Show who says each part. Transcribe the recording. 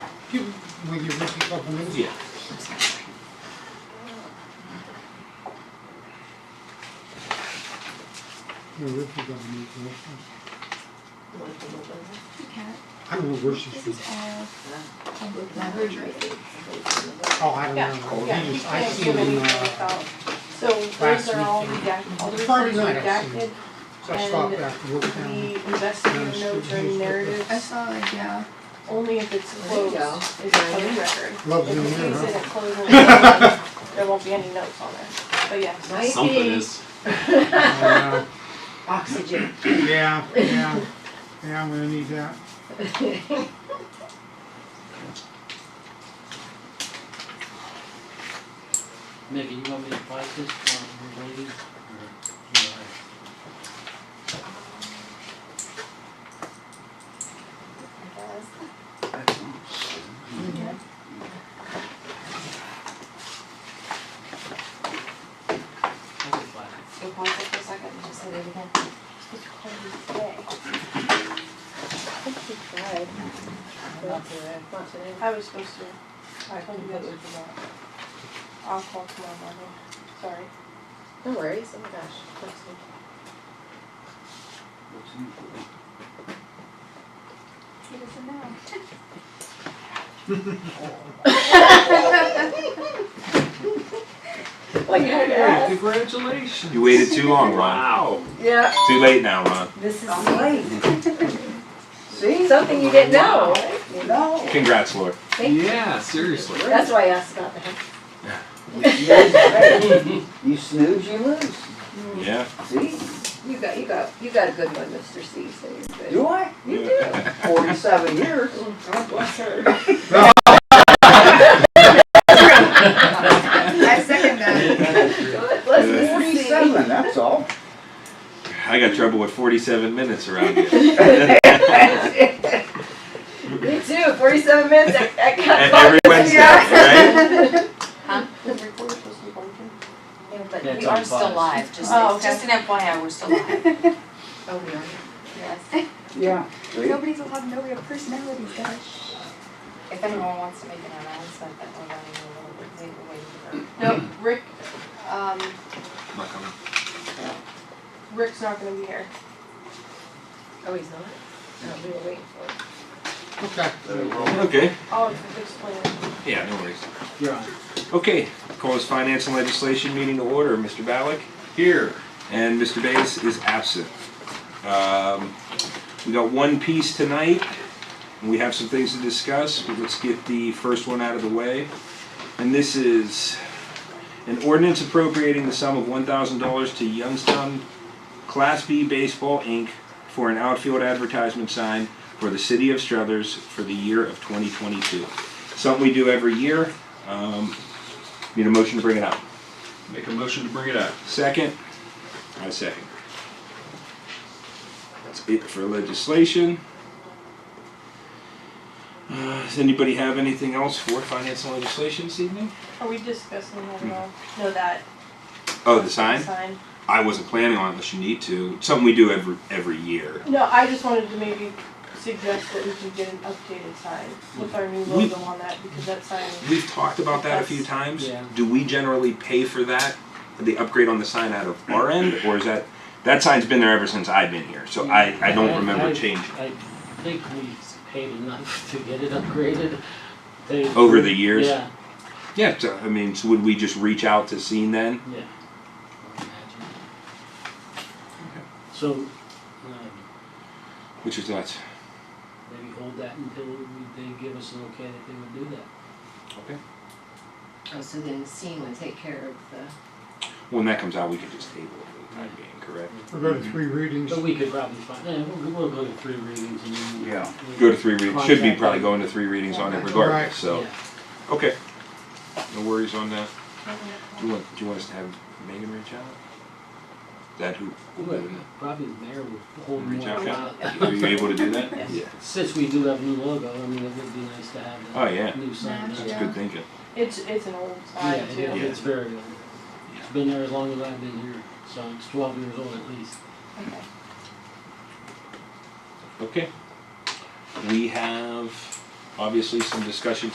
Speaker 1: people with your recent compliments.
Speaker 2: Yeah.
Speaker 1: Your recent compliments, yeah. I don't know where she's
Speaker 3: This
Speaker 1: from.
Speaker 3: is all public records, right?
Speaker 1: Oh, I don't
Speaker 4: Yeah,
Speaker 1: know.
Speaker 4: yeah,
Speaker 1: He
Speaker 4: you
Speaker 1: was- I
Speaker 4: can't
Speaker 1: see
Speaker 4: give
Speaker 1: him in,
Speaker 4: anything
Speaker 1: uh,
Speaker 4: without, so those are all
Speaker 1: last
Speaker 4: redacted, all the
Speaker 1: Friday
Speaker 4: reports
Speaker 1: night I
Speaker 4: redacted.
Speaker 1: seen him. so I stopped after work down.
Speaker 4: The investigative notes are
Speaker 3: I
Speaker 4: narratives,
Speaker 3: saw it, yeah.
Speaker 4: only if it's
Speaker 5: There you
Speaker 4: closed
Speaker 5: go.
Speaker 4: is a public record.
Speaker 1: Loves
Speaker 4: If
Speaker 1: him
Speaker 4: it's
Speaker 1: here,
Speaker 4: used in
Speaker 1: huh?
Speaker 4: a closed location, there won't be any notes on there, but yes.
Speaker 5: Might
Speaker 2: Something
Speaker 5: be
Speaker 2: is.
Speaker 1: Uh,
Speaker 5: Oxygen.
Speaker 1: Yeah, yeah, yeah, I'm gonna need that.
Speaker 6: Mickey, you want me to fight this one, lady? Or you all right? I can fight it.
Speaker 5: So pause it for a second and just say it again.
Speaker 4: It's called today.
Speaker 5: Not today. Not today.
Speaker 4: I was supposed to, I completely forgot. I'll call tomorrow morning, sorry.
Speaker 5: No worries, oh my gosh. Looks good.
Speaker 6: Looks in for it.
Speaker 3: He doesn't know.
Speaker 5: Like,
Speaker 2: Hey, congratulations.
Speaker 7: You waited too long, Ron.
Speaker 2: Wow.
Speaker 5: yeah,
Speaker 7: Too late now, Ron.
Speaker 5: this is late. See? Something you didn't know, you know?
Speaker 7: Congrats, Lord.
Speaker 5: Thank you.
Speaker 2: Yeah, seriously.
Speaker 5: That's why I asked about that.
Speaker 8: You snooze, you lose.
Speaker 7: Yeah.
Speaker 8: See?
Speaker 5: You got, you got, you got a good one, Mr. C, so you're good.
Speaker 8: Do I?
Speaker 5: You do.
Speaker 8: Forty-seven years.
Speaker 5: God bless her.
Speaker 3: I second that.
Speaker 5: God bless Mr. C.
Speaker 8: Forty-seven, that's all.
Speaker 7: I got trouble with 47 minutes around here. E-,
Speaker 5: Me too, forty-seven minutes, I, I
Speaker 7: And
Speaker 5: got.
Speaker 7: every Wednesday, right?
Speaker 4: The recorder's supposed to be working.
Speaker 5: Yeah, but
Speaker 6: That's
Speaker 5: we
Speaker 6: on
Speaker 5: are still
Speaker 6: pause.
Speaker 5: live, just,
Speaker 4: Oh,
Speaker 5: it's just an FYI, we're still live. Oh, we are? Yes.
Speaker 8: Yeah. See?
Speaker 3: Nobody's allowed no real personalities, guys.
Speaker 5: If anyone wants to make an announcement that we're running a little bit late, we're waiting
Speaker 4: No, Rick, um,
Speaker 7: Not coming.
Speaker 4: Rick's not gonna be here.
Speaker 5: for. Oh, he's not? No, we were waiting for him.
Speaker 1: Okay.
Speaker 7: Okay.
Speaker 4: I'll explain it.
Speaker 7: Yeah, no worries.
Speaker 6: You're on.
Speaker 7: Okay. Call this finance and legislation meeting to order. Mr. Ballack
Speaker 2: Here.
Speaker 7: and Mr. Bates is absent. Um, we got one piece tonight. and We have some things to discuss, but let's get the first one out of the way. And this is an ordinance appropriating the sum of one thousand dollars to Youngstown Class B Baseball Inc. for an outfield advertisement sign for the city of Struthers for the year of twenty twenty-two. Something we do every year. Um, need a motion to bring it up.
Speaker 2: Make a motion to bring it up.
Speaker 7: Second? I second. That's it for legislation. Uh, Does anybody have anything else for finance and legislation this evening?
Speaker 4: Are we discussing that at all? No, that
Speaker 7: Hmm. Oh, the sign?
Speaker 4: sign.
Speaker 7: I wasn't planning on it unless you need to. Something we do every, every year.
Speaker 4: No, I just wanted to maybe suggest that we could get an updated sign with our new
Speaker 7: We-
Speaker 4: logo on that, because that sign,
Speaker 7: We've talked about that a few times.
Speaker 6: Yeah.
Speaker 7: Do we generally pay for that, the upgrade on the sign out of our end? Or is that, that sign's been there ever since I've been here, so I, I don't remember
Speaker 6: I-
Speaker 7: changing.
Speaker 6: I think we paid enough to get it upgraded. They-
Speaker 7: Over the years?
Speaker 6: Yeah,
Speaker 7: Yeah, so, I mean, so would we just reach out to Scene then?
Speaker 6: yeah. I imagine. So, um,
Speaker 7: Which is nuts.
Speaker 6: maybe hold that until we- they give us an okay that they would do that.
Speaker 7: Okay.
Speaker 5: Oh, so then Sean would take care of the.
Speaker 7: When that comes out, we can just table it for the time being, correct?
Speaker 1: We're going to three readings.
Speaker 6: But we could probably find, yeah, we'll, we'll go to three readings and then. we'll-
Speaker 8: Yeah.
Speaker 6: we'll-
Speaker 7: Go to three readings, should be
Speaker 6: Contract.
Speaker 7: probably going to three readings on it
Speaker 1: Right.
Speaker 7: regardless, so,
Speaker 6: Yeah.
Speaker 7: okay. No worries on that. Do
Speaker 6: Mm-hmm.
Speaker 7: you want, do you want us to have Megan reach out? Is that who?
Speaker 6: Well, Probably the mayor would hold
Speaker 7: Reach
Speaker 6: more
Speaker 7: out.
Speaker 6: about,
Speaker 7: Are you able to do that?
Speaker 4: Yes.
Speaker 7: Yeah.
Speaker 6: since we do have a new logo, I mean, it would be nice to have
Speaker 7: Oh, yeah.
Speaker 6: that new sign.
Speaker 3: Match,
Speaker 6: up.
Speaker 3: yeah.
Speaker 7: Good thinking.
Speaker 4: it's, it's an old
Speaker 6: Yeah,
Speaker 4: sign
Speaker 6: it
Speaker 4: too.
Speaker 6: is. it's very old. It's been there as long as I've been here, so it's twelve years old at least.
Speaker 7: Okay. We have obviously some discussion